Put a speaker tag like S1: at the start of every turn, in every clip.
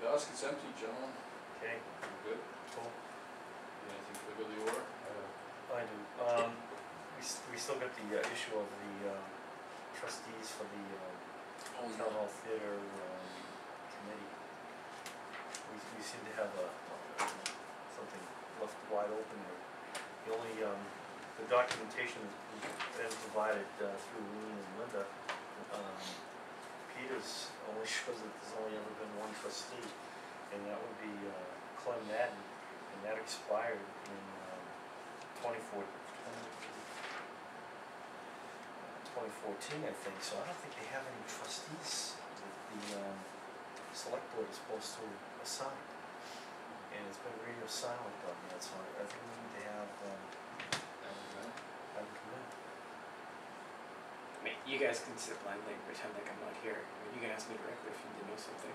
S1: basket's empty, gentlemen,
S2: Okay,
S1: I'm good,
S2: cool,
S1: anything for the good of the order?
S2: I do, um, we s- we still got the uh, issue of the um trustees for the um
S1: Oh,
S2: town hall theater um committee. We we seem to have a something left wide open there. The only um the documentation that's been provided uh through Lean and Linda, um Peter's only shows that there's only ever been one trustee. And that would be uh Clem Madden, and that expired in um twenty four, twenty fourteen, I think, so I don't think they have any trustees that the um select board is supposed to assign. And it's been radio silent on that, so I I think we need to have um have them come in.
S3: I mean, you guys can sit blindly and pretend like I'm not here. I mean, you can ask me directly if you need to know something.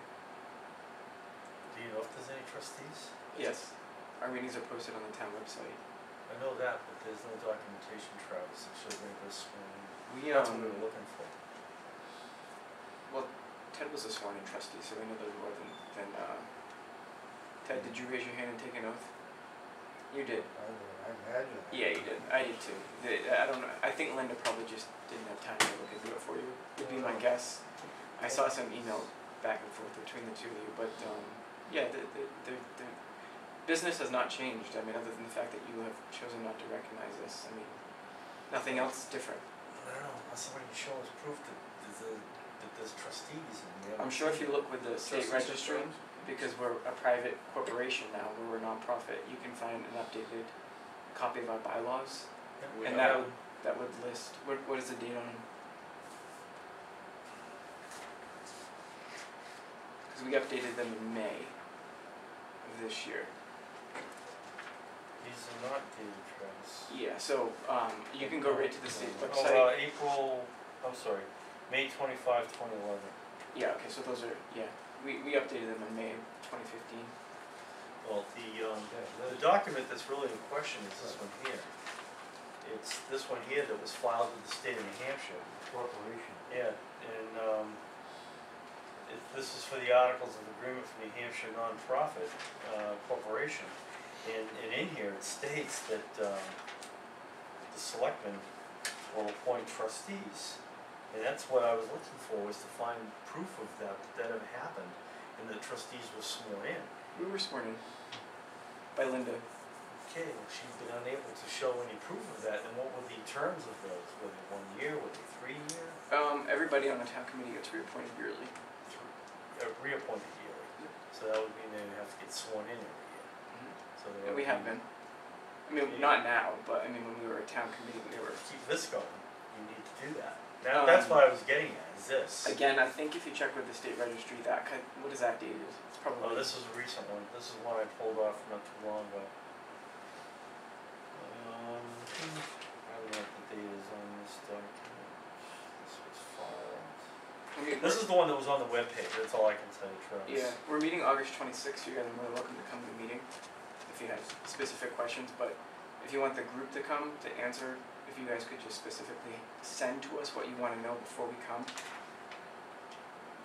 S2: Do you know if there's any trustees?
S3: Yes. Our meetings are posted on the town website.
S2: I know that, but there's no documentation, Travis, that should make us sworn in.
S3: We,
S2: That's what we
S3: um,
S2: were looking for.
S3: well, Ted was a sworn in trustee, so we know there's more than, than, uh, Ted, did you raise your hand and take an oath? You did.
S4: I would imagine.
S3: Yeah, you did. I did too. The- I don't know. I think Linda probably just didn't have time to look into it for you. Would be my guess. I saw some email back and forth between the two of you, but um, yeah, the, the, the, the business has not changed. I mean, other than the fact that you have chosen not to recognize us. I mean, nothing else different.
S2: I don't know, unless somebody can show us proof that there's a, that there's trustees and we have.
S3: I'm sure if you look with the state
S1: Trustees
S3: registry,
S1: terms?
S3: because we're a private corporation now, we're a nonprofit, you can find an updated copy of our bylaws
S1: We
S3: and
S1: have-
S3: that would that would list what what is the date on? Because we updated them in May of this year.
S2: These are not dated, Travis.
S3: Yeah, so um, you can go right to the state
S2: Oh,
S3: website.
S2: uh, April, I'm sorry, May twenty-five, twenty eleven.
S3: Yeah, okay, so those are yeah. We we updated them in May of 2015.
S2: Well, the, um,
S4: Yeah,
S2: the
S4: that's-
S2: document that's really in question is this one here. It's this one here that was filed with the state of New Hampshire.
S4: corporation.
S2: Yeah, and, um, it, this is for the Articles of Agreement for New Hampshire Nonprofit, uh, Corporation. And, and in here, it states that, um, the selectmen will appoint trustees. And that's what I was looking for, was to find proof of that, that that had happened, and the trustees were sworn in.
S3: We were sworn in by Linda.
S2: Okay, well, she's been unable to show any proof of that, and what were the terms of those? Were they one year, were they three year,
S3: Um, everybody on the town committee gets reappointed yearly.
S2: three, uh, reappointed yearly?
S3: Yep.
S2: So that would mean they would have to get sworn in every year, so they
S3: And
S2: would.
S3: Mm-hmm. we have been. I mean, not now, but I mean when we were a town committee, we were
S2: To keep this going, you need to do that. Now, that's
S3: Um,
S2: what I was getting at, is this.
S3: Again, I think if you check with the state registry, that kind, what is that dated? It's probably.
S2: Oh, this is a recent one, this is one I pulled off not too long ago. Um, I don't know what the date is on this document, this was filed.
S3: I mean,
S2: This is the one that was on the webpage, that's all I can tell you, Travis.
S3: yeah, we're meeting August twenty-sixth, you guys are more than welcome to come to the meeting, if you have specific questions, but if you want the group to come to answer, if you guys could just specifically send to us what you wanna know before we come.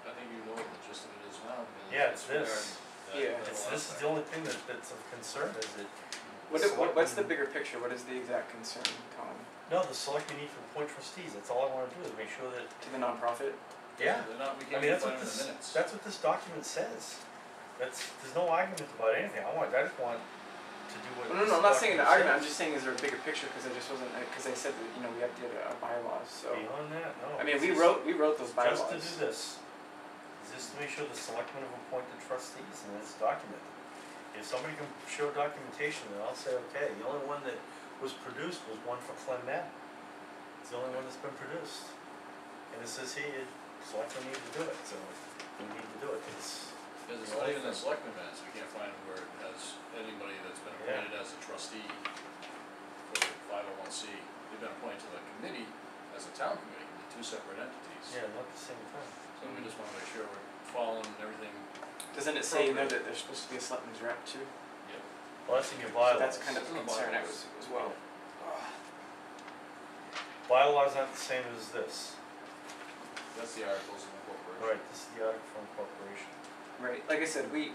S1: I think you know the gist of it is now. because
S2: Yeah, it's
S1: regarding
S2: this.
S1: that-
S3: Yeah.
S1: that
S2: It's,
S1: last
S2: this is the
S1: time.
S2: only thing that, that's of concern, is it,
S3: What, i- what, what's the
S2: Selectmen.
S3: bigger picture, what is the exact concern, Colin,
S2: no, the selectmen need to appoint trustees, that's all I wanna do, is make sure that,
S3: to the nonprofit?
S2: yeah,
S1: They're not, we
S2: I
S1: can't even
S2: mean, that's
S1: find it in
S2: what
S1: the minutes.
S2: this, that's what this document says. That's, there's no argument about anything, I want, I just want to do what
S3: No, no,
S2: this
S3: no, I'm not saying the
S2: document
S3: argument, I'm
S2: says.
S3: just saying is there a bigger picture, cause I just wasn't, I- cause I said that, you know, we updated our bylaws, so.
S2: Beyond that, no.
S3: I mean,
S2: it's
S3: we
S2: just-
S3: wrote, we wrote those bylaws.
S2: Just to do this, is just to make sure the selectmen have appointed trustees and it's documented. If somebody can show documentation, then I'll say, okay, the only one that was produced was one for Clem Madden. It's the only one that's been produced. And it says here, selectmen need to do it, so we need to do it, it's,
S1: Because it's not even in selectmen minutes, we can't find where it has anybody that's been
S2: Yeah.
S1: appointed as a trustee for the five oh one C. They've been appointed to the committee as a town committee, they're two separate entities.
S2: yeah, not the same thing.
S1: So we just wanna make sure we're following everything,
S3: Doesn't it say in there that there's supposed to be a selectman's rep too?
S1: yep.
S2: Well, that's in your
S3: So
S2: bylaws.
S3: That's kind of
S1: It's in
S3: a
S1: the
S3: concern I
S1: bylaws.
S3: was as well.
S2: Bylaws aren't the same as this.
S1: That's the articles of incorporation.
S2: Right, this is the article from corporation.
S3: Right, like I said, we,